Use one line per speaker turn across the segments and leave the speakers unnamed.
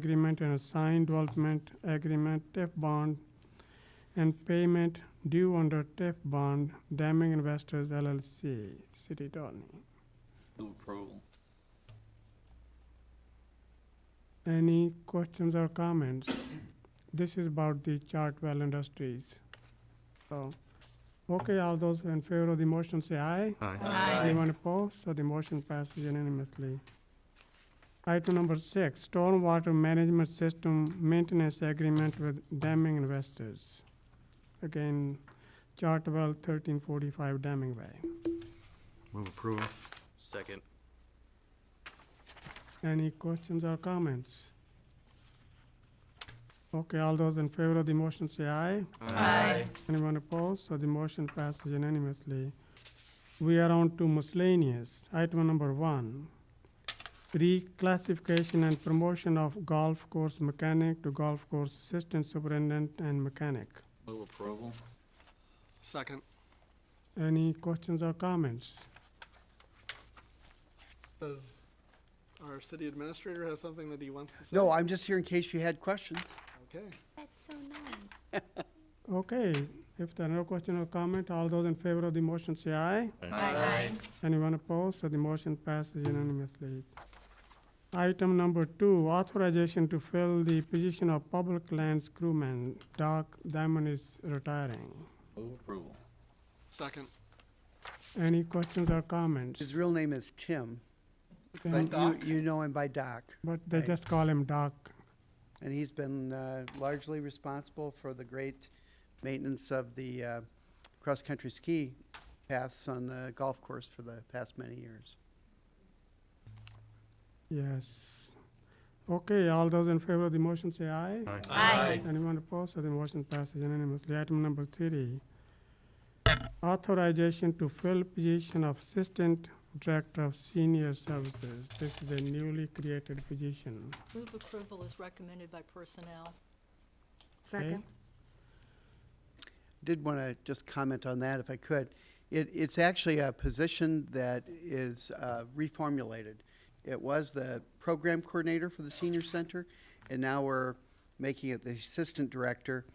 agreement and a signed development agreement, TIF bond, and payment due under TIF bond, Daming Investors LLC, City Attorney.
Move approval.
Any questions or comments? This is about the Chartwell Industries. So, okay, all those in favor of the motion say aye. Anyone opposed? So the motion passes unanimously. Item number six, stormwater management system maintenance agreement with Damming Investors. Again, Chartwell thirteen forty-five Damming Way.
Move approval.
Second.
Any questions or comments? Okay, all those in favor of the motion say aye.
Aye.
Anyone opposed? So the motion passes unanimously. We are on to miscellaneous. Item number one, reclassification and promotion of golf course mechanic to golf course assistant superintendent and mechanic.
Move approval.
Second.
Any questions or comments?
Does our city administrator have something that he wants to say?
No, I'm just here in case you had questions.
Okay.
That's so nice.
Okay, if there are no question or comment, all those in favor of the motion say aye.
Aye.
Anyone opposed? So the motion passes unanimously. Item number two, authorization to fill the position of public lands crewman. Doc Diamond is retiring.
Move approval.
Second.
Any questions or comments?
His real name is Tim,
Then-
but you, you know him by Doc.
But they just call him Doc.
And he's been uh, largely responsible for the great maintenance of the uh, cross-country ski paths on the golf course for the past many years.
Yes. Okay, all those in favor of the motion say aye.
Aye.
Anyone opposed? So the motion passes unanimously. Item number three, authorization to fill position of Assistant Director of Senior Services. This is a newly created position.
Move approval is recommended by personnel.
okay?
Did want to just comment on that if I could. It, it's actually a position that is uh, reformulated. It was the program coordinator for the senior center, and now we're making it the assistant director.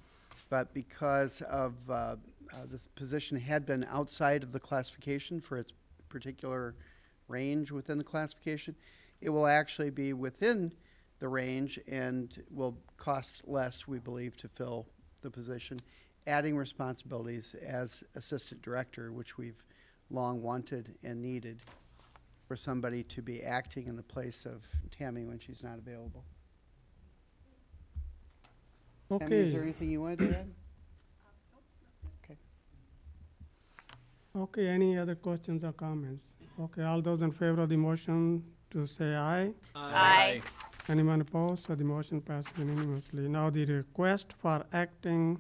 But because of uh, uh, this position had been outside of the classification for its particular range within the classification, it will actually be within the range and will cost less, we believe, to fill the position, adding responsibilities as assistant director, which we've long wanted and needed for somebody to be acting in the place of Tammy when she's not available. Tammy, is there
Okay,
anything you wanted to add?
okay, any other questions or comments? Okay, all those in favor of the motion to say aye?
Aye.
Anyone opposed? So the motion passes unanimously. Now the request for acting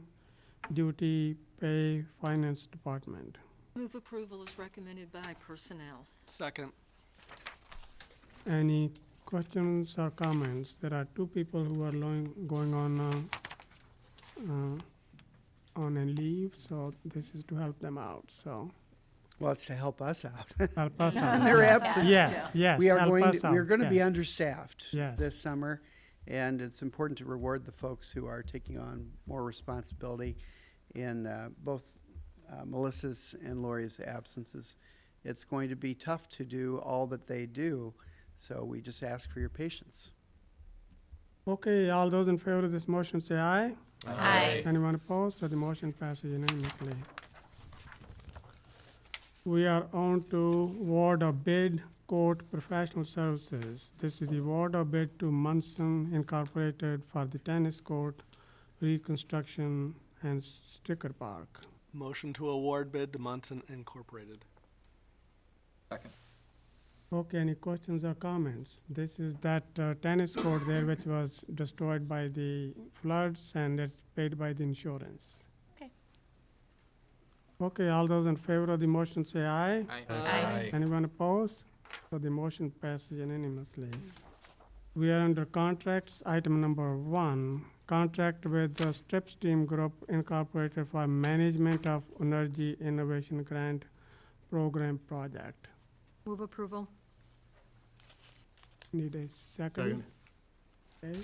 duty pay finance department.
Move approval is recommended by personnel.
Second.
Any questions or comments? There are two people who are loing, going on, uh, uh, on a leave, so this is to help them out, so.
Well, it's to help us out.
Help us out.
They're
yeah.
absent.
Yes, yes,
We are
help
going,
us
to-
out.
we're going to be
yes.
understaffed
Yes.
this summer, and it's important to reward the folks who are taking on more responsibility in uh, both uh, Melissa's and Lori's absences. It's going to be tough to do all that they do, so we just ask for your patience.
Okay, all those in favor of this motion say aye.
Aye.
Anyone opposed? So the motion passes unanimously. We are on to award of bid court professional services. This is the award of bid to Munson Incorporated for the tennis court reconstruction and sticker park.
Motion to award bid to Munson Incorporated.
Second.
Okay, any questions or comments? This is that uh, tennis court there which was destroyed by the floods and it's paid by the insurance.
Okay.
Okay, all those in favor of the motion say aye.
Aye.
Anyone opposed? So the motion passes unanimously. We are under contracts, item number one, contract with the Strip Steam Group Incorporated for management of energy innovation grant program project.
Move approval?
Need a second? Okay.